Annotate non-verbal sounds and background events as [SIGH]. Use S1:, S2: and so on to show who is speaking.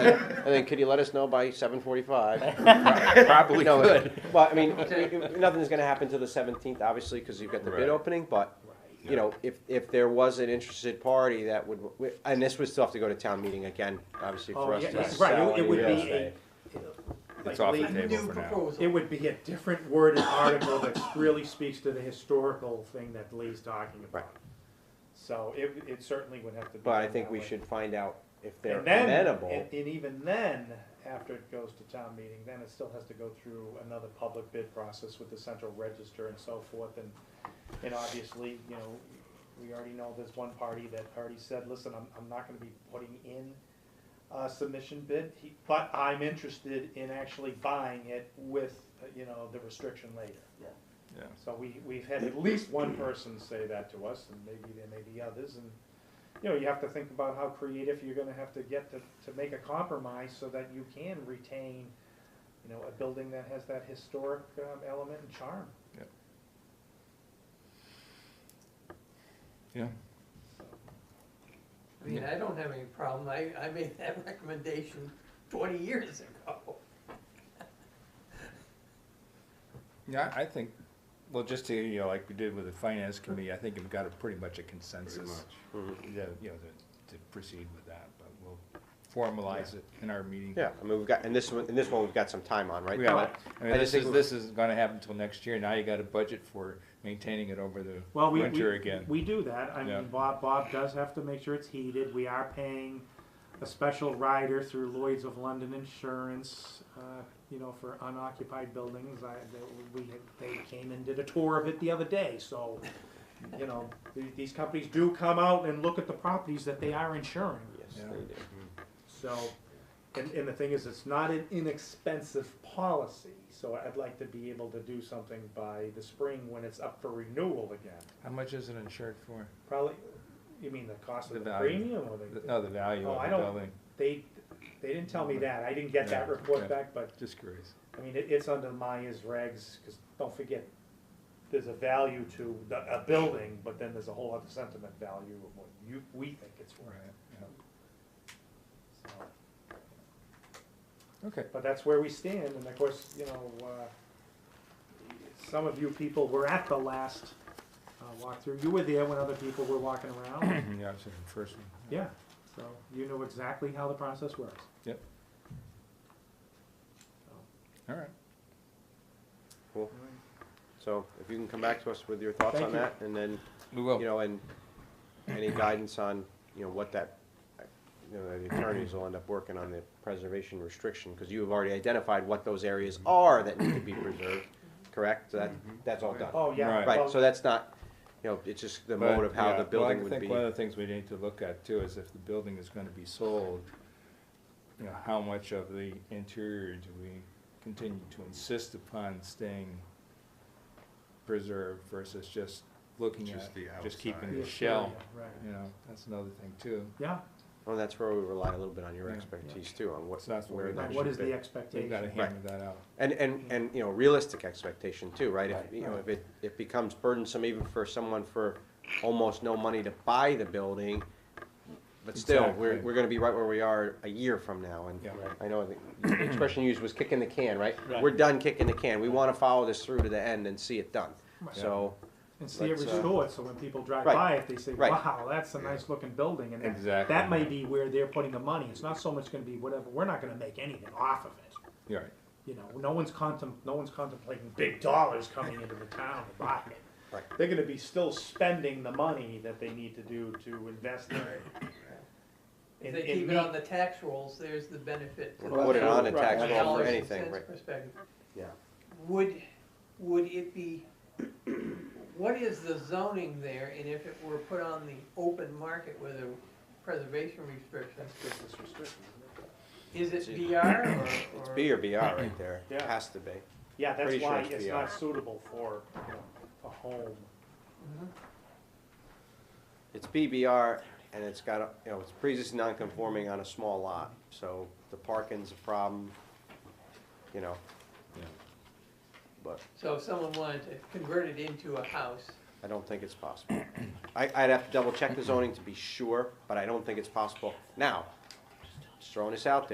S1: And then could you let us know by seven
S2: [LAUGHS]
S1: forty-five?
S3: [LAUGHS] Probably
S1: No,
S3: could.
S1: But, I mean, nothing's gonna happen till the seventeenth, obviously, because you've got the bid
S3: Right.
S1: opening, but, you know, if, if there was an interested party that would, and this would still have to go to town meeting again, obviously,
S2: Oh,
S1: for us
S2: yeah,
S1: to
S2: it's right,
S1: sell.
S2: it- it would
S1: and
S2: be
S1: say-
S2: a.
S3: It's
S2: like
S3: off the
S2: Lee-
S3: table for now.
S2: It would be a different worded article that really speaks to the historical thing that Lee's talking
S1: Right.
S2: about. So it, it certainly would have to be.
S1: But I
S2: done
S1: think
S2: that
S1: we
S2: way.
S1: should find out if they're
S2: And then,
S1: amenable.
S2: and- And even then, after it goes to town meeting, then it still has to go through another public bid process with the central register and so forth, and, and obviously, you know, we already know there's one party that already said, listen, I'm, I'm not gonna be putting in a submission bid, he- but I'm interested in actually buying it with, you know, the restriction later.
S3: Yeah.
S2: So we, we've had at least one person say that to us, and maybe there may be others, and, you know, you have to think about how creative you're gonna have to get to, to make a compromise so that you can retain, you know, a building that has that historic, um, element and charm.
S3: Yeah.
S4: I mean, I don't have any problem, I, I made [LAUGHS] that recommendation twenty years ago.
S3: Yeah, I I think, well, just to, you know, like we did with the finance committee, I think we've got a pretty much a consensus.
S1: Mm-hmm.
S3: that, You know, to, to proceed with that, but we'll formalize it in our meeting.
S1: Yeah, I mean, we've got, and this one, and this one, we've got some time on, right?
S3: We are, I
S1: I
S3: mean,
S1: just
S3: this
S1: think
S3: is,
S1: we-
S3: this is gonna happen until next year, now you got a budget for maintaining it over the
S2: Well, we,
S3: winter
S2: we,
S3: again.
S2: we do that, I
S3: Yeah.
S2: mean, Bob, Bob does have to make sure it's heated, we are paying a special rider through Lloyd's of London Insurance, uh, you know, for unoccupied buildings, I, they, we, they came and did a tour of it the other day, so, you know, th- these companies do come out and look at the properties that they are insuring,
S1: Yes,
S3: Yeah.
S1: they do.
S2: so, and, and the thing is, it's not an inexpensive policy, so I'd like to be able to do something by the spring when it's up for renewal again.
S3: How much is it insured for?
S2: Probably, you mean the cost
S3: The
S2: of the
S3: value.
S2: premium or
S3: The- uh,
S2: the,
S3: No, the value
S2: Oh,
S3: of
S2: I
S3: the
S2: don't-
S3: building,
S2: they, they didn't tell me that, I didn't get that
S3: Yeah,
S2: report
S3: okay.
S2: back, but,
S3: just curious.
S2: I mean, it, it's under Maya's regs, cause don't forget, there's a value to the, a building, but then there's a whole other sentiment value of what you, we think it's worth.
S3: Right, yeah.
S2: So,
S3: Okay,
S2: But that's where we stand, and of course, you know, uh, some of you people were at the last, uh, walkthrough, you were there when other people were walking around, [COUGHS]
S3: yeah, I was in the first one.
S2: Yeah, so you know exactly how the process works.
S3: Yep. All right,
S1: So if you can come back to us with your thoughts
S2: Thank
S1: on
S2: you.
S1: that, and then,
S3: we will.
S1: you know, and any guidance on, you know, what that, you know, the attorneys will end up working on the preservation restriction, because you have already identified what those areas are that need to be preserved, correct? So That, that's all done.
S2: Oh, yeah.
S3: Right.
S1: Right,
S2: well,
S1: so that's not, you know, it's just the
S3: But,
S1: mode of how
S3: yeah,
S1: the building
S3: Well, I
S1: would be.
S3: think one of the things we need to look at too is if the building is gonna be sold, you know, how much of the interior do we continue to insist upon staying preserved versus just looking at,
S5: Just the
S3: just keeping
S2: the
S3: the shell,
S2: exterior, Right,
S3: you know, that's another thing too.
S2: yeah,
S1: Well, that's where we rely a little bit on your
S3: Yeah.
S1: expertise too, on what,
S3: So that's what
S1: where
S3: we're
S1: that
S2: right,
S3: Right,
S2: what
S1: should
S2: is
S1: be.
S2: the
S3: We've gotta
S2: expectation?
S3: hammer that out.
S1: And, and, and, you know, realistic expectation too, right? If,
S3: Right.
S1: you know, if it, it becomes burdensome even for someone for almost no money to buy the building, but still, we're,
S3: Exactly.
S1: we're gonna be right where we are a year from now, and
S3: Yeah. Right.
S1: I know the- the expression used was kicking the can, right?
S3: Right.
S1: We're done kicking the can, we wanna follow this through to the end and see it done,
S2: Right.
S1: so,
S2: And see it
S1: Let's, uh,
S2: restored, so when people drive
S1: Right,
S2: by, if they say,
S1: right.
S2: wow, that's a nice looking building, and that,
S3: Exactly.
S2: that may be where they're putting the money, it's not so much gonna be whatever, we're not gonna make anything off of it.
S3: You're right.
S2: You know, no one's contem, no one's contemplating big dollars coming into the town to buy it.
S1: Right.
S2: They're gonna be still spending the money that they need to do to invest in it.
S4: If
S2: And-
S4: they
S2: and
S4: keep it
S2: meet-
S4: on the tax rolls, there's the benefit. to
S1: Or
S4: the
S1: put it
S4: town
S1: on a
S4: from
S2: tax roll
S4: a
S2: for
S4: dollars and
S1: anything,
S4: cents
S1: right.
S4: perspective.
S1: Yeah.
S4: Would, would it be, what is the zoning there, and if it were put on the open market with a preservation restriction,
S2: Business restriction, isn't it?
S4: is
S1: It's
S4: it
S1: either-
S4: BR or?
S1: [COUGHS] it's
S4: or-
S1: B or BR
S3: [CLEARS THROAT]
S1: right there,
S2: Yeah.
S1: has to be.
S2: Yeah,
S1: Pretty
S2: that's
S1: sure
S2: why
S1: it's uh,
S2: it's
S1: VR.
S2: not suitable for you know, a home.
S4: Mhm.
S1: It's BBR, and it's got, a you know, it's pre-existing non-conforming on a small lot, so the parking's a problem, you know.
S3: Yeah.
S1: But
S4: So if someone wanted to convert it into a house,
S1: I don't think it's possible. I, I'd have to double-check the zoning to be sure, but I don't think it's possible. Now, just throwing this out there.